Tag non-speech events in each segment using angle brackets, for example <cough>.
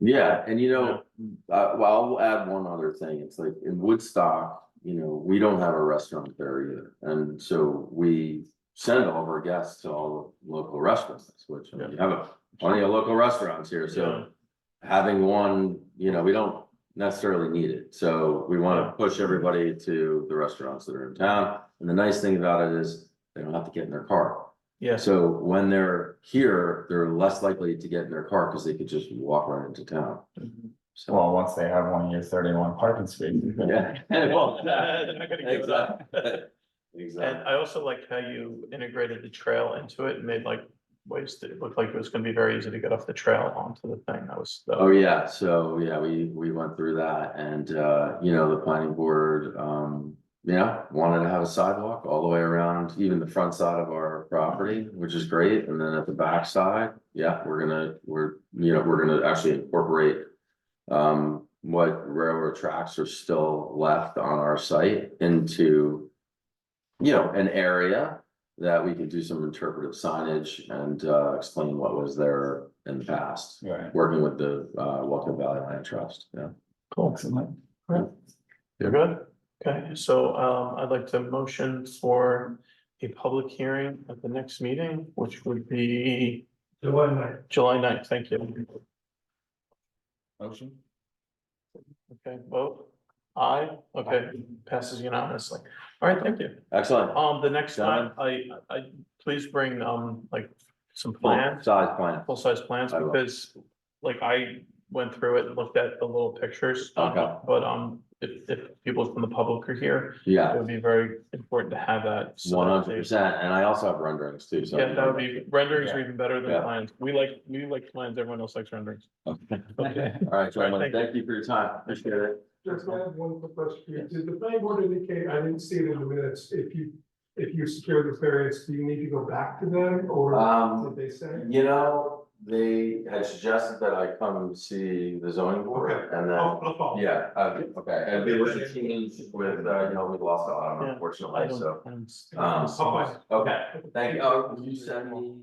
Yeah, and you know, uh, well, I'll add one other thing, it's like in Woodstock, you know, we don't have a restaurant there either, and so we. Send all of our guests to all the local restaurants, which I mean, you have a- plenty of local restaurants here, so. Having one, you know, we don't necessarily need it, so we Yeah. wanna push everybody to the restaurants that are in town. And the nice thing about it is, they don't have to get in their car, Yes, so when they're here, they're less likely to get in their car, cause they could just walk right into town. So, Well, once they have one year thirty-one parking spaces. then- yeah. <laughs> Well, <laughs> they're not gonna give it up. Exactly. <laughs> and <laughs> Exactly. I also liked how you integrated the trail into it and made like ways that it looked like it was gonna be very easy to get off the trail onto the thing. That was, that Oh, yeah, so, yeah, we, we went through that and, uh, you know, the planning board, um, yeah, wanted to have a sidewalk all the way around, even the front side of our property, which is great, and then at the back side, yeah, we're gonna, we're, you know, we're gonna actually incorporate um, what railroad tracks are still left on our site into you know, an area that we could do some interpretive signage and, uh, explain what was there in the past Right. working with the uh Walker Valley Land Trust, yeah. cool. Excellent. You're good? Okay, so um I'd like to motion for a public hearing at the next meeting, which would be July ninth. July 9th. thank you. Motion? Okay, vote. Aye, okay, passes unanimously. All right, thank you. Excellent. Um, the next time, I, I, please bring, um, like, some plans, Size plan. full-size plans, I will. because, like, I went through it and looked at the little pictures. um, Okay. But, um, if, if people from the public are here, it Yeah, would be very important to have that. so one that hundred they- percent. And I also have renderings too, so. Yeah, <laughs> that would be, renderings are even better than Yeah. plans. We like, we like plans, everyone else likes renderings. Okay. All right, gentlemen, Thank you. thank you for your time. Appreciate it. Just I have one quick question. Did the planning board indicate, I didn't see it in the minutes, if you, if you secure the variance, do you need to go back to them or Um, did they say? you know, they had suggested that I come see the zoning board Okay. and I'll- then, Oh, Oh, I'll follow. yeah, uh, okay. And it was a change with, uh, you know, we lost the autumn Yeah, I unfortunately, don't- so. I'm- Um, I'll find Okay, it. thank you. Oh, will you send me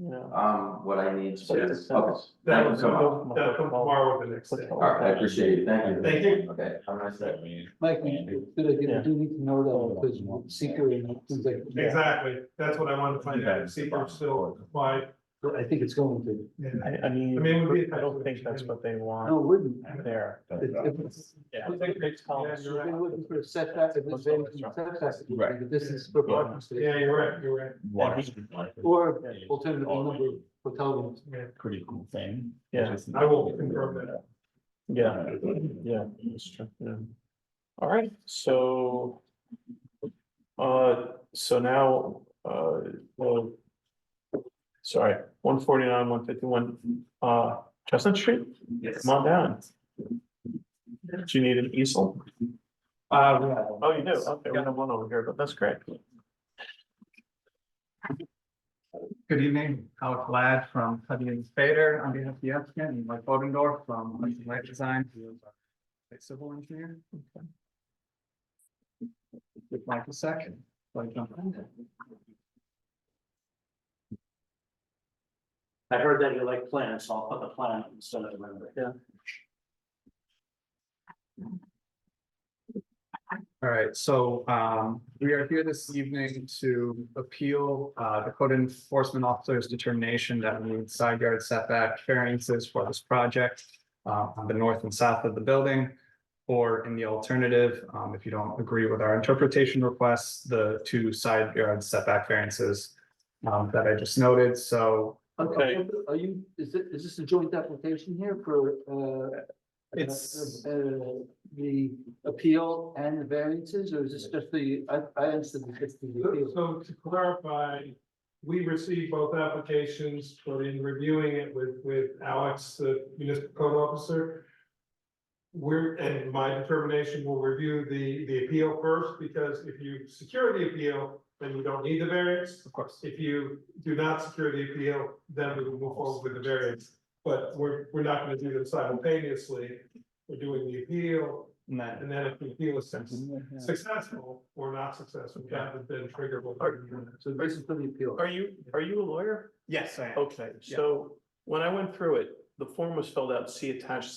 Yeah. um what I need to? Yes. Okay. Thank That'll you so much. come, that'll come tomorrow or the next day. All right, I appreciate it, thank you. Thank you. Okay, have a nice day. Mike, Andy. you- good idea, Yeah. you do need to know that, because seeker and things like. Exactly. That's what I wanted to find out, see if I'm still, why, I think it's going to, yeah. I, I mean, I mean, it would be- I don't think that's what they no, want it wouldn't. there. If- if it's- Yeah. I think they- yeah, if you're You're right. looking for a setback, if it's been setback, it would be the distance for parking Yeah, space. you're right, you're right. Water. Or alternative number of hotel rooms. Yeah. Pretty cool thing. Yeah. Just- I will confirm that. Yeah, yeah, that's true, yeah. All right, so. Uh, so now, uh, well. Sorry, one forty-nine, one fifty-one, uh, Chestnut Street, Yes. come on down. Do you need an easel? Uh, we have- Oh, you do, okay, we have one over here, but that's great. Good evening, Alec Ladd from Cuddy and Spader on behalf of the applicant and Mike Bodendorf from Hudson Light Design. who is a Civil engineer. Give Mike a second. before I jump in. I heard that you like plants, so I'll put the plant instead of the rendering. All right, so um, we are here this evening to appeal uh, the code enforcement officer's determination that we need side yard setback variances for this project uh, on the north and south of the building. Or in the alternative, um, if you don't agree with our interpretation requests, the two side yard setback variances um, that I just noted, so Okay. Are you, is it, is this a joint application here for, uh? It's- Uh, the appeal and the variances, or is this just the, I, I understood it's just the appeal. So to clarify, we received both applications, but in reviewing it with, with Alex, the municipal code officer. We're, and my determination will review the, the appeal first, because if you secure the appeal, then you don't need the variance. of course. If you do not secure the appeal, then we will move forward with the variance. But we're, we're not gonna do them simultaneously. We're doing the appeal, And then and then if the appeal is success- successful or not successful, that would then trigger. what we're doing. So this is for the appeal. Are you, are you a lawyer? Yes, I am. Okay, so when I went through it, the form was filled out, see attached